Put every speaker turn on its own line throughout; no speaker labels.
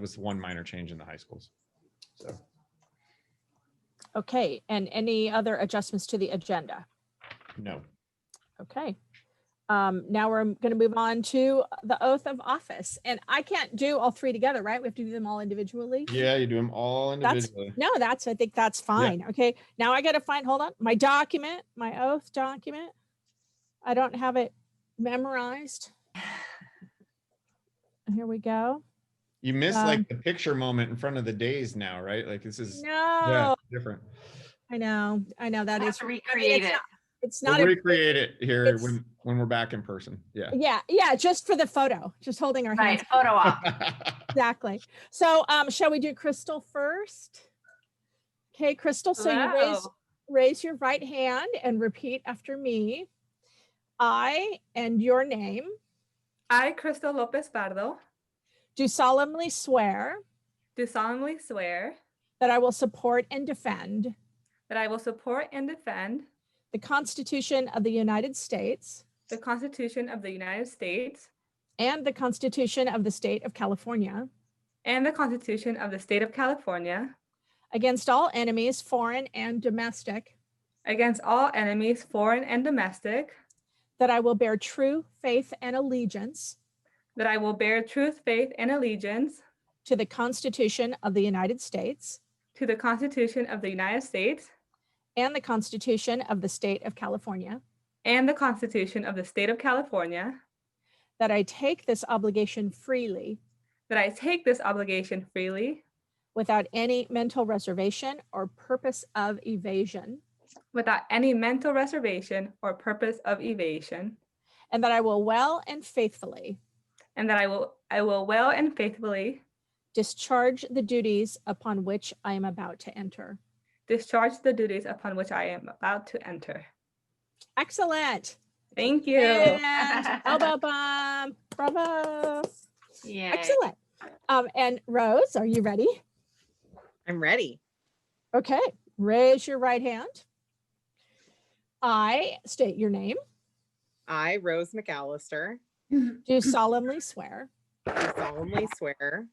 was one minor change in the high schools. So
Okay, and any other adjustments to the agenda?
no,
Okay. Um, now we're going to move on to the oath of office. And I can't do all three together, right? We have to do them all individually?
yeah, you do them all
That's-
individually.
No, that's, I think that's fine. Okay, now I gotta find, hold on, my document, my oath document. I don't have it memorized. Here we go.
You miss
Um,
like the picture moment in front of the days now, right? Like this is yeah,
No,
different.
I know, I know that
I
is,
have to recreate
it's
it.
not- it's
We'll
not, a-
recreate it here
it's-
when when we're back in person. Yeah.
yeah, yeah, just for the photo, just holding our hands,
Right, photo op.
exactly. So, um, shall we do Crystal first? Okay, Crystal, so you raise,
Hello.
raise your right hand and repeat after me. I and your name
I, Crystal Lopez Pardo,
do solemnly swear
do solemnly swear
that I will support and defend
that I will support and defend
the Constitution of the United States
the Constitution of the United States
and the Constitution of the State of California
and the Constitution of the State of California
against all enemies, foreign and domestic,
against all enemies, foreign and domestic,
that I will bear true faith and allegiance
that I will bear truth, faith, and allegiance
to the Constitution of the United States
to the Constitution of the United States
and the Constitution of the State of California,
and the Constitution of the State of California,
that I take this obligation freely
that I take this obligation freely
without any mental reservation or purpose of evasion,
without any mental reservation or purpose of evasion,
and that I will well and faithfully
and that I will I will well and faithfully
discharge the duties upon which I am about to enter.
discharge the duties upon which I am about to enter.
Excellent.
Thank you.
And elbow bump. Bravo.
Yeah.
Excellent. Um, and Rose, are you ready?
I'm ready.
Okay. Raise your right hand. I state your name.
I, Rose McAllister,
Do solemnly swear
do solemnly swear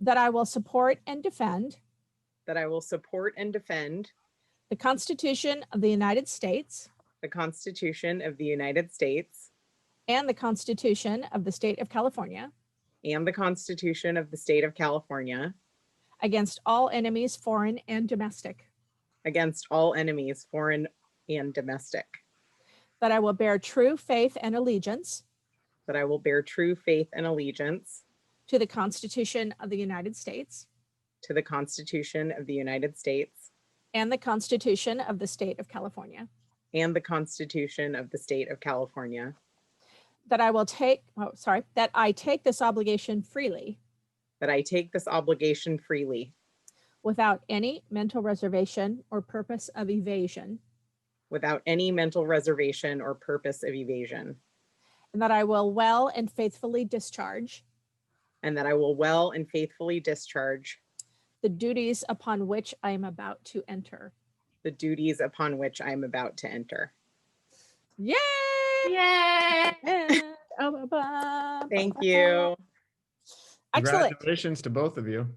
that I will support and defend
that I will support and defend
the Constitution of the United States
the Constitution of the United States
and the Constitution of the State of California
and the Constitution of the State of California
against all enemies, foreign and domestic.
against all enemies, foreign and domestic,
That I will bear true faith and allegiance
that I will bear true faith and allegiance
to the Constitution of the United States
to the Constitution of the United States
and the Constitution of the State of California.
and the Constitution of the State of California,
That I will take, oh, sorry, that I take this obligation freely
that I take this obligation freely
without any mental reservation or purpose of evasion,
without any mental reservation or purpose of evasion.
and that I will well and faithfully discharge
And that I will well and faithfully discharge
the duties upon which I am about to enter.
the duties upon which I am about to enter.
Yay!
Yay.
And- oh, ba- ba-
Thank
ba- ba-
you.
Excellent.
Congratulations to both of you.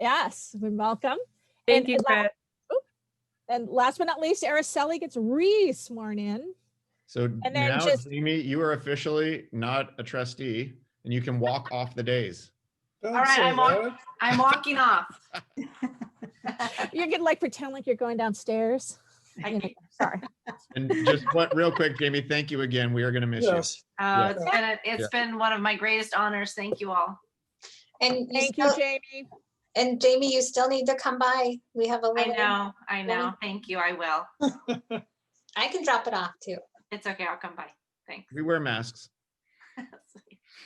Yes, we welcome.
Thank
And
you,
allow-
Chris.
And last but not least, Araceli gets re-sworn in.
So
then
now,
just-
Jamie, you are officially not a trustee and you can walk off the days.
All
right, I'm on- I'm walking off.
You're gonna like pretend like you're going downstairs. You know,
I-
Sorry.
And just what, real quick, Jamie, thank you again. We are going to miss you.
Yes,
Oh,
Yeah.
it's been, a-
Yeah.
it's been one of my greatest honors. Thank you all.
And you
Thank you,
still,
Jamie.
and Jamie, you still need to come by. We have a
I
little.
know, I know. Thank you. I will.
I can drop it off too.
It's okay. I'll come by. Thanks.
We wear masks.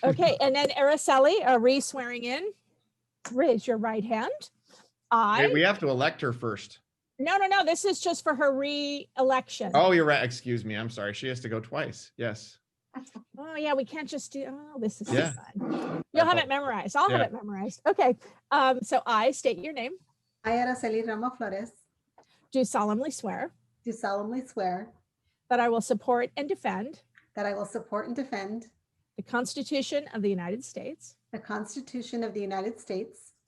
Okay, and then Araceli, a re-swearing in. Raise your right hand.
Wait,
I,
we have to elect her first.
no, no, no, this is just for her re-election.
Oh, you're right. Excuse me. I'm sorry. She has to go twice. Yes.
Oh, yeah, we can't just do, oh, this is so
Yeah.
fun. You'll have it memorized. I'll have
Yeah.
it memorized. Okay, um, so I state your name,
I, Araceli Ramos Flores,
do solemnly swear
do solemnly swear
that I will support and defend
that I will support and defend
the Constitution of the United States
the Constitution of the United States